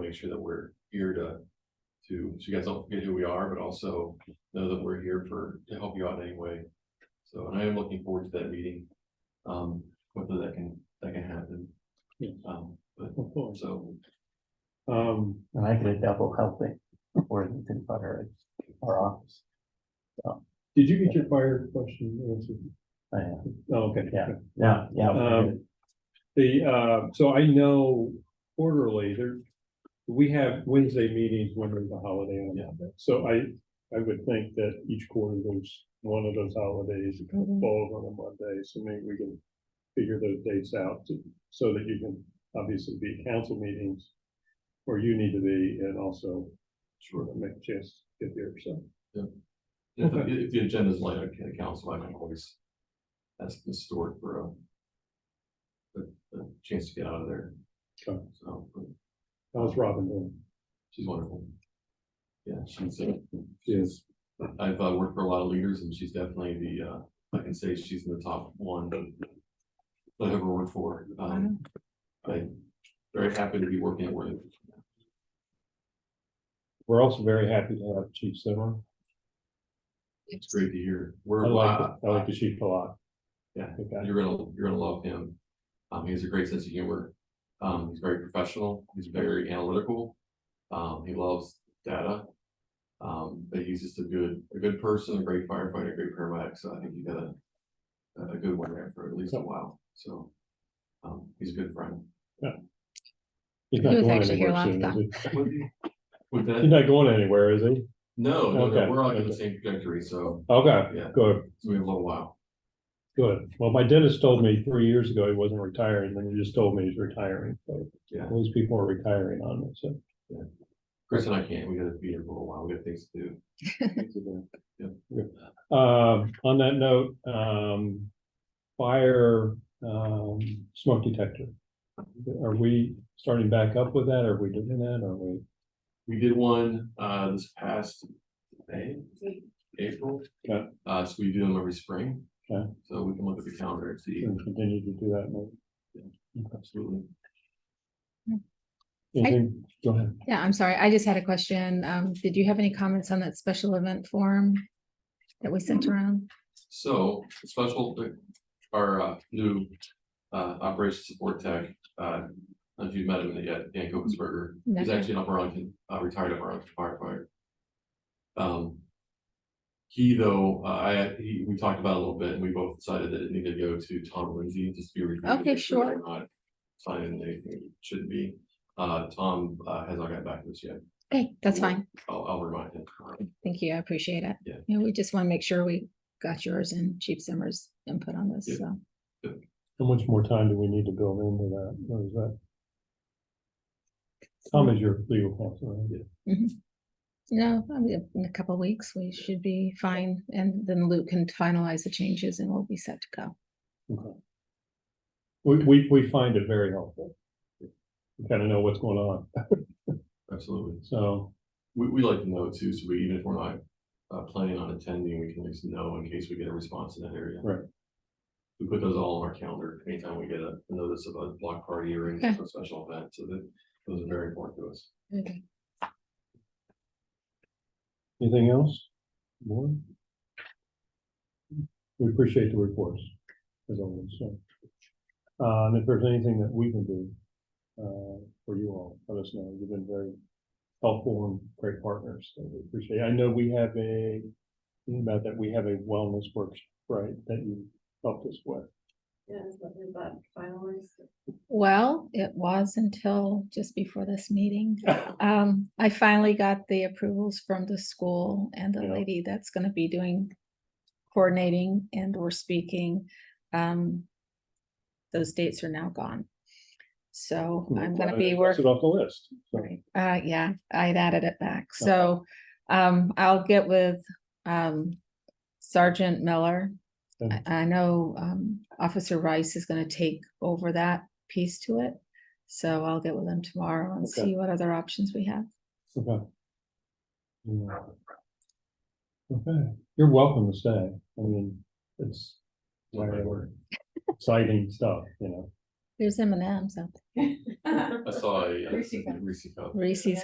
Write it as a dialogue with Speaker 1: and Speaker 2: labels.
Speaker 1: make sure that we're here to, to, so you guys don't forget who we are, but also know that we're here for, to help you out in any way. So, and I am looking forward to that meeting, um, whether that can, that can happen.
Speaker 2: Yeah.
Speaker 1: Um, but,
Speaker 2: Of course.
Speaker 1: so,
Speaker 2: Um,
Speaker 3: And I get a double helping for the tin butter at our office.
Speaker 2: did you get your fire question answered?
Speaker 3: I am.
Speaker 2: Oh, Okay.
Speaker 3: Yeah. Yeah, yeah. we're good.
Speaker 2: Um, the, uh, so I know quarterly there, we have Wednesday meetings when there's a holiday on that. So I, I would think that each quarter there's one of those holidays that kind of falls on a Monday, so maybe we can figure those dates out to- so that you can obviously be at council meetings where you need to be and also sure make a chance to get there, so.
Speaker 1: if, the- if the agenda's light, okay, the council, I can always ask the store for a a, a chance to get out of there.
Speaker 2: Okay.
Speaker 1: So, but
Speaker 2: How's Robin doing?
Speaker 1: she's wonderful. Yeah, she's, uh,
Speaker 2: Yes.
Speaker 1: I've uh, worked for a lot of leaders and she's definitely the, uh, I can say she's in the top one. That I've ever worked for. Um, I'm very happy to be working at work.
Speaker 2: We're also very happy to have Chief Simmer.
Speaker 1: It's great to hear.
Speaker 2: I
Speaker 1: We're,
Speaker 2: like,
Speaker 1: uh,
Speaker 2: the- I like the chief a lot.
Speaker 1: Yeah.
Speaker 2: Okay.
Speaker 1: you're gonna, you're gonna love him. Um, he has a great sense of humor. Um, he's very professional. He's very analytical. Um, he loves data. Um, but he's just a good, a good person, a great firefighter, a great paramedic. So I think you got a, a good one there for at least a while. So, um, he's a good friend.
Speaker 2: He's not
Speaker 4: He was
Speaker 2: going
Speaker 4: actually here
Speaker 2: anywhere
Speaker 4: last
Speaker 2: soon, is he?
Speaker 1: With
Speaker 2: He's
Speaker 1: that,
Speaker 2: not going anywhere, is he?
Speaker 1: no, no, no,
Speaker 2: Okay,
Speaker 1: we're all on the
Speaker 2: okay.
Speaker 1: same trajectory, so,
Speaker 2: Okay,
Speaker 1: Yeah.
Speaker 2: good,
Speaker 1: so we have a little while.
Speaker 2: good. Well, my dentist told me three years ago he wasn't retiring, then he just told me he's retiring. So
Speaker 1: Yeah.
Speaker 2: All these people are retiring on me, so.
Speaker 1: Chris and I can't, we gotta be here for a little while, we got things to do.
Speaker 2: Um, on that note, um, fire, um, smoke detector. Are we starting back up with that? Are we doing that? Are we?
Speaker 1: We did one, uh, this past May, April.
Speaker 2: Okay.
Speaker 1: Uh, so we do them every spring.
Speaker 2: Okay.
Speaker 1: So we can look at the calendar and see,
Speaker 2: gonna Continue to do that, maybe?
Speaker 1: absolutely.
Speaker 2: Anything, go ahead.
Speaker 4: Yeah, I'm sorry. I just had a question. Um, did you have any comments on that special event form that we
Speaker 1: Mm-hmm.
Speaker 4: sent around?
Speaker 1: So special, our uh, new uh, operations support tech, uh, I don't know if you've met him yet, Dan Kokensberger. He's
Speaker 4: No.
Speaker 1: actually an Burlington, uh, retired Burlington firefighter. Um, he though, uh, I, he, we talked about it a little bit and we both decided that it needed to go to Tom Lindsay, just to be reviewed.
Speaker 4: Okay,
Speaker 1: make that
Speaker 4: sure.
Speaker 1: we're Not signing anything, it shouldn't be. Uh, Tom, uh, has not gotten back to us yet.
Speaker 4: Okay, that's fine.
Speaker 1: I'll, I'll remind him.
Speaker 4: Thank you. I appreciate it.
Speaker 1: Yeah.
Speaker 4: we just want to make sure we got yours and Chief Zimmer's input on this,
Speaker 1: Yeah.
Speaker 4: so.
Speaker 2: How much more time do we need to build into that? What is that? Tom is your legal counsel, right?
Speaker 4: No, I mean, in a couple of weeks, we should be fine, and then Luke can finalize the changes and we'll be set to go.
Speaker 2: We, we, we find it very helpful. We kind of know what's going on,
Speaker 1: Absolutely.
Speaker 2: so,
Speaker 1: We, we like to know too, so we, even if we're not, uh, planning on attending, we can at least know in case we get a response in that area.
Speaker 2: Right.
Speaker 1: We put those all on our calendar anytime we get a a notice of a block party or any
Speaker 4: Okay.
Speaker 1: sort of special event, so that, those are very important to us.
Speaker 4: Okay.
Speaker 2: anything else? More? We appreciate the reports, as always, so. Uh, and if there's anything that we can do, uh, for you all, let us know. You've been very helpful and great partners, so we appreciate it. I know we have a, about that, we have a wellness workshop, right, that you helped us with.
Speaker 5: Yeah, is that- is that finalized?
Speaker 4: Well, it was until just before this meeting. Um, I finally got the approvals from the school and the
Speaker 2: Yeah.
Speaker 4: lady that's gonna be doing coordinating and or speaking. Um, those dates are now gone. So I'm gonna be
Speaker 2: Cross
Speaker 4: working.
Speaker 2: It off the list. so.
Speaker 4: Right, uh, yeah, I'd added it back, so, um, I'll get with, um, Sergeant Miller.
Speaker 2: Okay.
Speaker 4: I, I know, um, Officer Rice is gonna take over that piece to it, so I'll get with him tomorrow and
Speaker 2: Okay.
Speaker 4: see what other options we have.
Speaker 2: Okay. Yeah. Okay, you're welcome to stay. I mean, it's
Speaker 1: Love that
Speaker 2: very exciting stuff, you know.
Speaker 6: There's M and M's out there.
Speaker 1: I saw a, a
Speaker 4: Reese cup.
Speaker 1: Reese cup.
Speaker 6: Reese's